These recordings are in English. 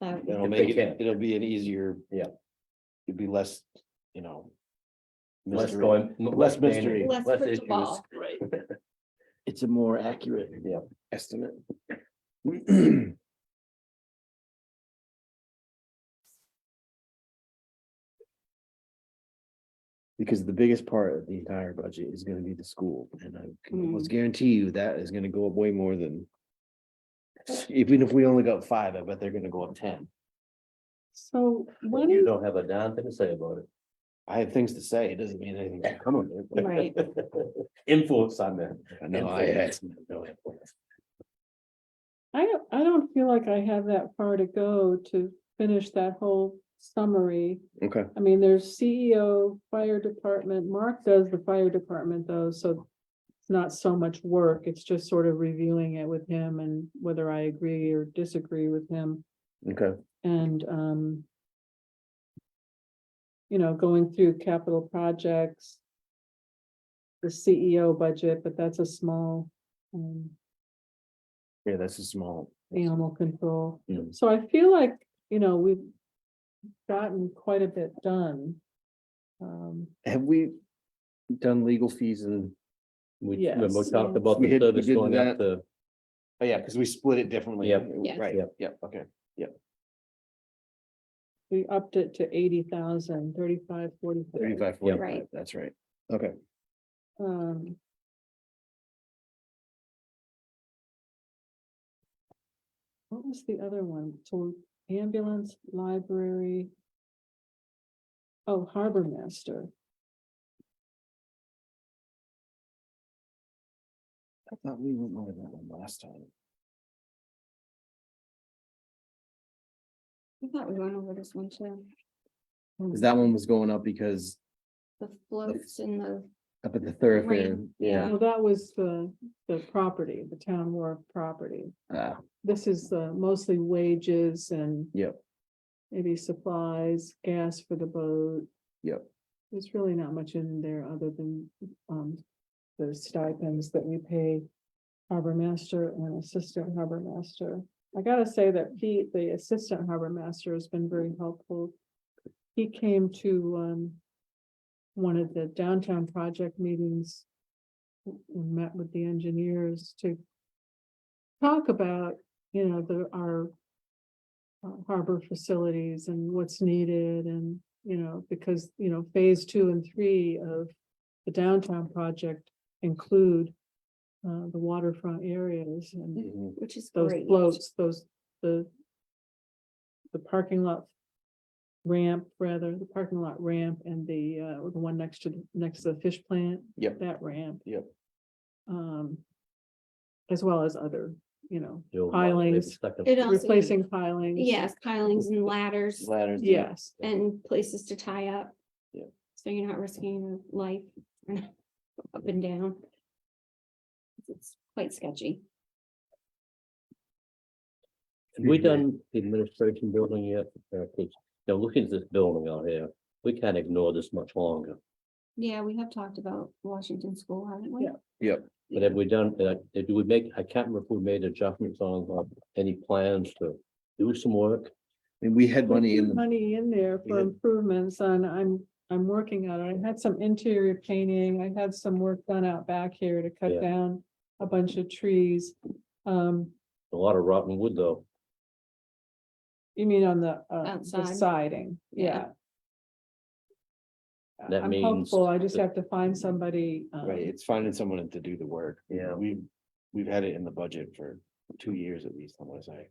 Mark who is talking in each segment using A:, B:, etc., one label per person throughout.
A: that
B: That'll
C: If
B: make
C: they
B: it,
C: can.
B: it'll be an easier.
C: Yeah.
B: It'll be less, you know.
C: Less
B: mystery.
C: going,
B: Less mystery.
A: Less
C: Less
A: put the
C: issues.
A: ball.
B: Right.
D: It's a more accurate.
C: Yeah.
D: Estimate. Because the biggest part of the entire budget is gonna be the school, and I can almost guarantee you that is gonna go up way more than. Even if we only got five, I bet they're gonna go up ten.
A: So when
C: You don't have a darn thing to say about it.
D: I have things to say, it doesn't mean anything. to Come on. man.
A: Right.
C: Influence on that.
D: I know, I had.
E: I don't, I don't feel like I have that far to go to finish that whole summary.
D: Okay,
E: I mean, there's CEO, fire department, Mark does the fire department though, so. It's not so much work, it's just sort of reviewing it with him and whether I agree or disagree with him
D: okay,
E: and, um. You know, going through capital projects. The CEO budget, but that's a small, um.
D: yeah, that's a small.
E: animal control.
D: Yeah.
E: So I feel like, you know, we've gotten quite a bit done. Um,
D: Have we done legal fees and?
C: We, remember we
E: Yes.
C: talked about
D: We
C: the
D: had- we
C: service
D: did
C: going up
D: that.
C: to,
B: Oh, yeah, because we split it differently.
C: Yep.
A: Yes.
B: Right,
C: Yep.
B: yep, okay.
E: we upped it to eighty thousand, thirty-five, forty.
D: Thirty-five,
C: Yeah.
D: forty-five, that's right. Okay,
E: Um. What was the other one? So ambulance, library. Oh, harbor master.
D: I thought we went over that one last time.
A: I thought we went over this one too.
D: Cause that one was going up because
A: The floats and the,
D: up at the thoroughfare,
A: Right.
D: yeah.
E: Well, that was the, the property, the town wharf property.
D: Ah,
E: this is the mostly wages and.
D: Yep.
E: Maybe supplies, gas for the boat.
D: Yep.
E: There's really not much in there other than, um, the stipends that we pay harbor master and assistant harbor master. I gotta say that Pete, the assistant harbor master, has been very helpful. He came to, um, one of the downtown project meetings and met with the engineers to talk about, you know, the, our uh, harbor facilities and what's needed and, you know, because, you know, phase two and three of the downtown project include uh, the waterfront areas and
B: Mm-hmm.
D: mhm.
A: which is
E: those
A: great.
E: floats, those, the the parking lot ramp, rather, the parking lot ramp and the, uh, the one next to, the next to the fish plant.
D: Yep.
E: That ramp.
D: Yep.
E: Um, as well as other, you know,
C: you know, like, maybe
E: Pilings.
C: second-
A: It also-
E: replacing pilings.
A: Yes, pilings and ladders
D: Ladders.
E: Yes,
A: and places to tie up.
D: Yeah.
A: So you're not risking your life up and down. It's quite sketchy.
C: Have We done the administration building yet? Uh, 'cause, Now, looking at this building out here, we can't ignore this much longer.
A: Yeah, we have talked about Washington School, haven't we?
E: Yeah.
C: But have we done, uh, did we make, I can't remember if we made adjustments on uh, any plans to do some work?
D: And we had money in, the
E: money in there
D: We
E: for
D: had-
E: improvements and I'm, I'm working on it. I had some interior painting. I had some work done out back here to
C: Yeah.
E: cut down a bunch of trees. Um,
C: A lot of rotten wood, though.
E: You mean on the, uh, the
A: Outside.
E: siding, yeah. Uh,
A: Yeah.
C: That
E: I'm
C: means Mm-hmm.
E: hopeful, I just
C: that-
E: have to find somebody, um,
B: Right, it's finding someone to do the work.
C: Yeah.
B: We've, we've had it in the budget for two years at least, I want to say.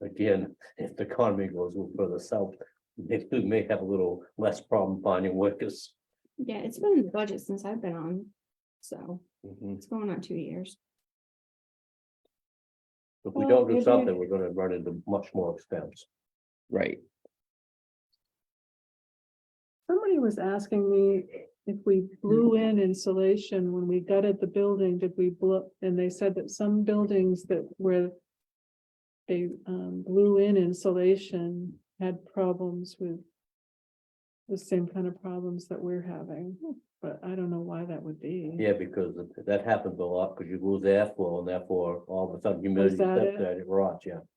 C: Again, if the economy goes a little further south, maybe we may have a little less problem finding workers.
A: Yeah, it's been in the budget since I've been on. So
C: Mm-hmm.
B: Mhm.
A: it's going on two years.
C: If we
E: Well,
C: don't do
E: maybe-
C: something, we're gonna run into much more expense.
D: right,
E: somebody was asking me if we blew
C: Mm-hmm.
E: in insulation when we gutted the building, did we blow? And they said that some buildings that were they, um, blew in insulation had problems with the same kind of problems that we're having, but I don't know why that would be.
C: Yeah, because that happens a lot, because you lose airflow and therefore all of a sudden humidity
E: that
C: sets
E: it?
C: in, it rots, yeah.